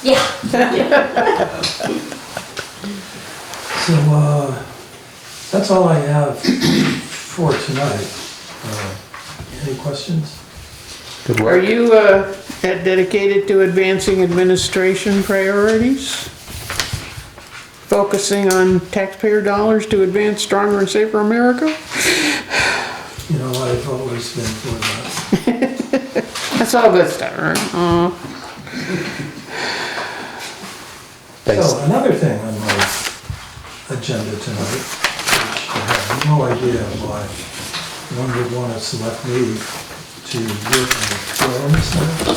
Yeah, So, uh, that's all I have for tonight. Uh, Any questions? Good Are work. you uh, dedicated to advancing administration priorities? Focusing on taxpayer dollars to advance stronger and safer America? You know, I've always been for that. That's all good stuff, right? Uh, Thanks. So another thing on my agenda tonight, which I have no idea why one would want to select me to work on firms now.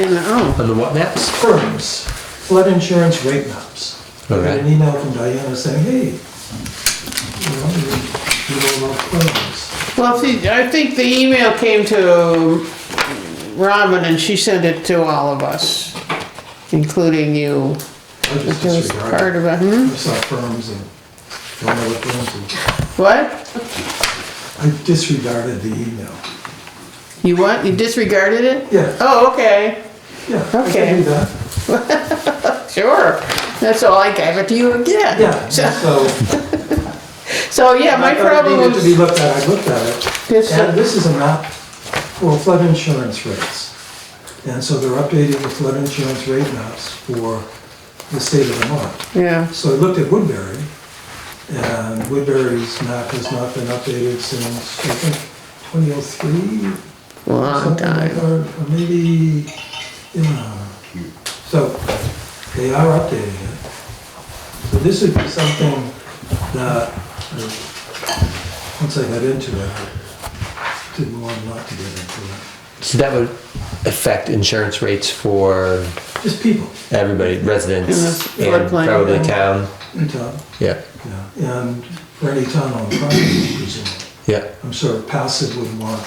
And, oh, On the what maps? Firms, flood insurance rate maps. I got an Okay. email from Diana saying, hey, you know, you you know about firms. well, see, I think the email came to Robin and she sent it to all of us, including you. I just It was disregarded. part of it, hmm? I saw firms and don't know what firms are. What? I disregarded the email. You what? You disregarded it? Yeah, Oh, okay, yeah. I can Okay. do that. sure. That's all, I gave it to you again. Yeah, So- so. So, yeah, my I thought it problem Needed to be was, looked at, I looked at Yes, it. sir. And this is a map for flood insurance rates. And so they're updating the flood insurance rate maps for the state of Vermont. yeah, So I looked at Woodbury, and Woodbury's map has not been updated since, I think, 2003? long something like time. that, Or maybe, yeah. So they are updating it. So this would be something that, uh, once I got into it, I didn't want not to get into it. So that would affect insurance rates for Just people, everybody, residents, In the and floodplain, probably yeah. town. in town, Yeah, yeah, and for any town on property, presumably. yeah. I'm sure passive would want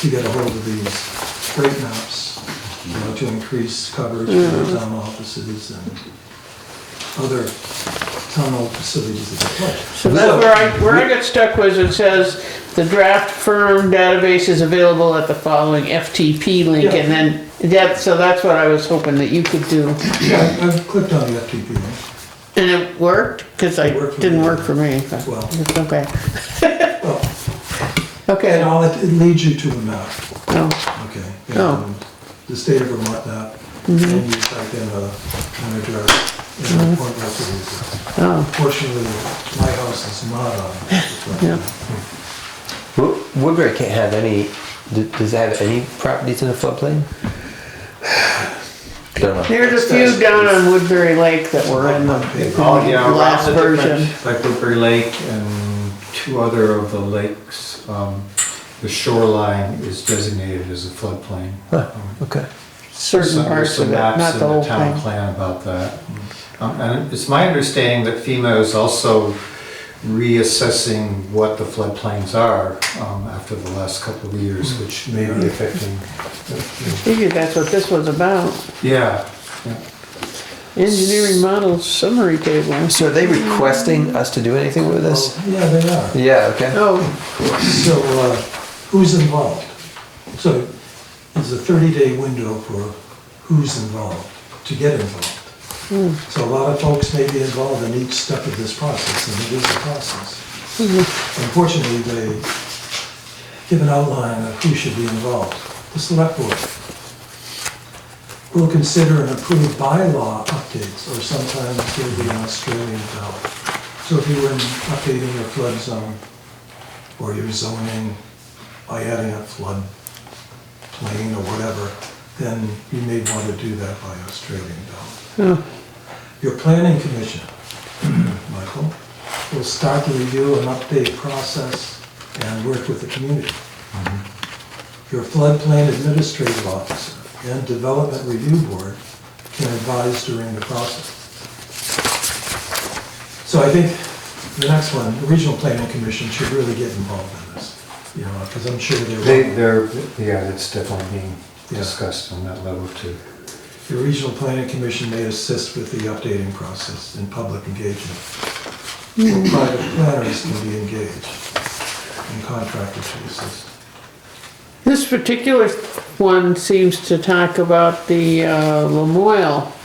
to get a hold of these rate maps, you know, to increase coverage for town offices and other town facilities that they like. So that's where I, where I got stuck was it says, the draft firm database is available at the following FTP link, and then, that, so that's what I was hoping that you could do. Yeah, I- I've clicked on the FTP link. And it worked, cause I, It worked for didn't me. work for me, but, Well. it's okay. Well, And Okay, all, it it leads you to a map, oh, okay? Oh. Mm-hmm. And The state of Vermont map, and you type in a, an address, and a point reference. oh, Fortunately, my house is not on it. Yeah. Wo- Woodbury can't have any, d- does it have any properties in the floodplain? I don't know. there's a few down on Woodbury Lake that were in the Oh, yeah, last lots of different, version. Like Woodbury Lake and two other of the lakes, um, the shoreline is designated as a floodplain. Um, Okay. certain Some- parts of it, not the whole There's some maps in the town thing. plan about that. Um, And it's my understanding that FEMA is also reassessing what the floodplains are um, after the last couple of years, Hmm. which may be affecting, Figured that's what this was about. yeah. yeah. Engineering model summary table. So are they requesting us to do anything with this? Oh, Yeah, they are. Yeah, okay. Oh, So, uh, who's involved? So, there's a 30-day window for who's involved, to get involved. So a lot of folks may be involved in each step of this process, and it is a process. Unfortunately, they give an outline of who should be involved. The select board will consider and approve bylaw updates, or sometimes there'll be an Australian ballot. So if you were updating your flood zone, or your zoning by adding a flood plain or whatever, then you may want to do that by Australian ballot. Your planning commission, Michael, will start the review and update process and work with the community. Your floodplain administrative officer and development review board can advise during the process. So I think the next one, the regional planning commission should really get involved in this, you know, because I'm sure They, they're, they're, yeah, it's definitely being Yeah. discussed on that level too. the regional planning commission may assist with the updating process and public engagement. Private planners can be engaged and contracted to assist. this particular one seems to talk about the uh, Lamoille